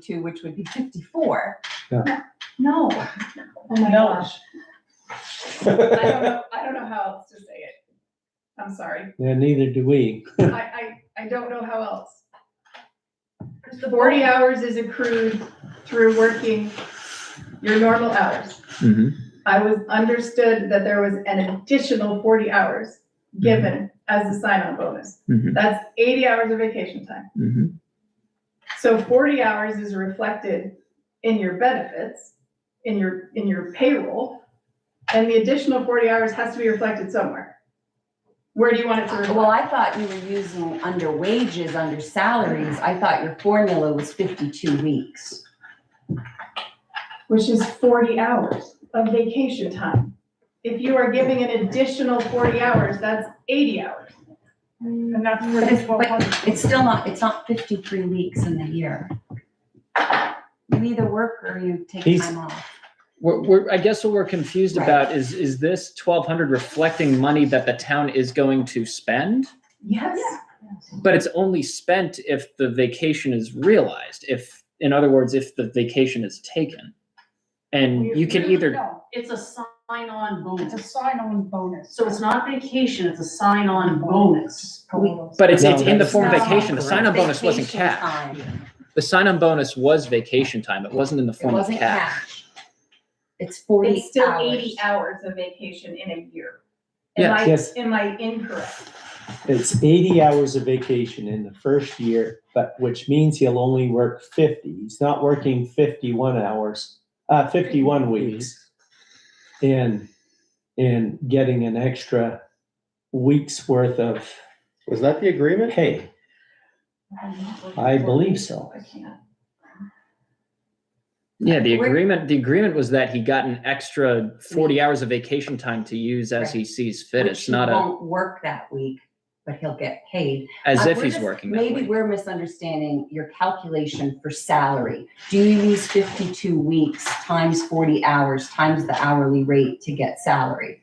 two, which would be fifty-four. No. Oh my No. gosh. I don't Yeah, know, I don't know how else to say it. I'm sorry. neither do we. I, I, I don't know how else. Because the Forty forty hour, hours is accrued through working your normal hours. I was understood that there was an additional forty hours given as a sign-on bonus. Mhm. That's eighty hours of vacation time. Mhm. So forty hours is reflected in your benefits, in your, in your payroll. And the additional forty hours has to be reflected somewhere. Where do you want it to Well, I reflect? thought you were using under wages, under salaries, I thought your formula was fifty-two weeks. Which is forty hours of vacation time. If you are giving an additional forty hours, that's eighty hours. and that's for But Mm. the it's, twelve but months. it's still not, it's not fifty-three weeks in the year. You either work or you take He's- time off. We're, we're, I guess what we're confused Right. about is, is this twelve hundred reflecting money that the town is going to spend? Yes. But it's only spent if the vacation is realized, if, in other words, if the vacation is taken. And you can either, No, It's a sign-on It's a bonus. sign-on bonus. So it's not vacation, it's a sign-on bonus. but it's, No, it's in the that's- form of No. vacation. The sign-on bonus wasn't Vacation cash. time. The sign-on bonus was vacation time. It wasn't in the It form of wasn't cash. cash. It's forty It's still hours. eighty hours of vacation in a year. Yeah. Am I, Yes. am I incorrect? It's eighty hours of vacation in the first year, but which means he'll only work fifty. He's not working fifty-one hours, uh, fifty-one weeks. And, and getting an extra week's worth of Was that the agreement? pay. I believe so. I can't. Yeah, the We're- agreement, the agreement was that he got an extra forty hours of vacation time to use as he sees fit. which It's he not a, Won't work that week, but he'll get paid. as Uh, if we're he's just- working that Maybe way. we're misunderstanding your calculation for salary. Do you use fifty-two weeks times forty hours times the hourly rate to get salary?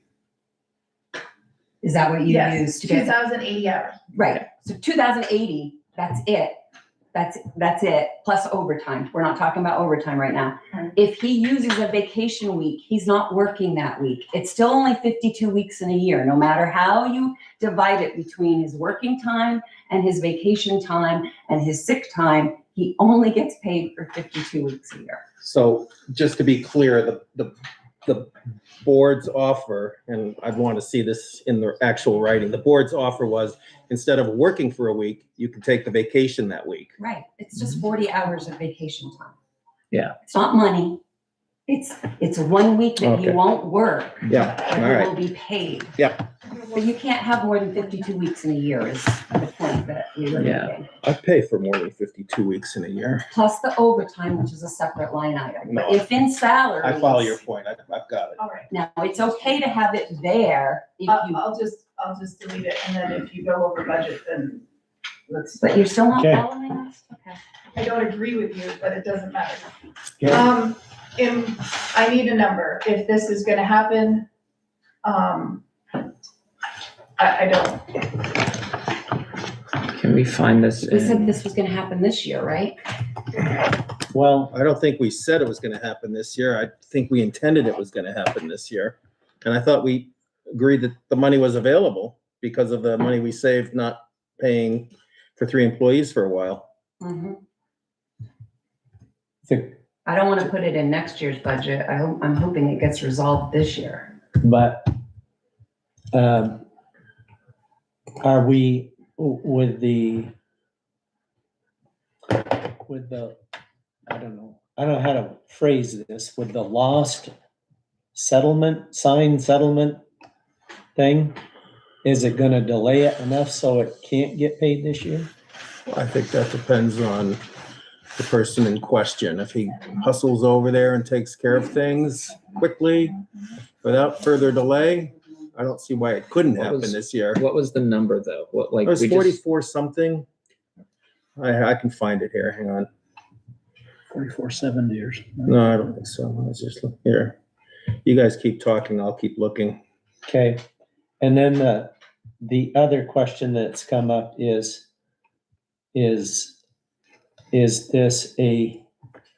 Is that what you use Yes, to two get, thousand eighty hours. right, so two thousand eighty, that's it. That's, that's it, plus overtime. We're not talking about overtime right now. Right. If he uses a vacation week, he's not working that week. It's still only fifty-two weeks in a year, no matter how you divide it between his working time and his vacation time and his sick time. He only gets paid for 52 weeks a year. So just to be clear, the, the, the board's offer, and I'd want to see this in the actual writing, the board's offer was instead of working for a week, you could take the vacation that week. Right. It's just 40 hours of vacation time. Yeah. It's not money. It's, it's one week that he Okay. won't work, Yeah, but all he right. will be paid. Yeah. But you can't have more than 52 weeks in a year is the point that we were Yeah. making. I pay for more than fifty-two weeks in a year. Plus the overtime, which is a separate line item. But No. if in salary. I follow your point. I, I've got it. All right, Now, it's okay to have it there if I'll, you I'll just, I'll just delete it, and then if you go over budget, then let's, But you're still not Okay. following us? Okay. I don't agree with you, but it doesn't matter. Yeah. Um, and I need a number, if this is gonna happen, um, I, I don't, Can we find this We said in? this was gonna happen this year, right? Well, I don't think we said it was going to happen this year. I think we intended it was going to happen this year. And I thought we agreed that the money was available because of the money we saved not paying for three employees for a while. Mhm. think- I don't wanna put it in next year's budget. I hope, I'm hoping it gets resolved this year. But um, are we w- with the with the I don't know I don't know how to phrase this with the lost settlement signed settlement thing? Is it going to delay it enough so it can't get paid this year? I think that depends on the person in question. If he hustles over there and takes care of things quickly without further delay, I don't see why it couldn't What happen was- this year. What was the number though? What like? It was we just- forty-four something. I, I can find it here. Hang on. Forty-four seventy or something. No, I don't think so. Let's just look here. You guys keep talking. I'll keep looking. Okay, and then the, the other question that's come up is, is, is this a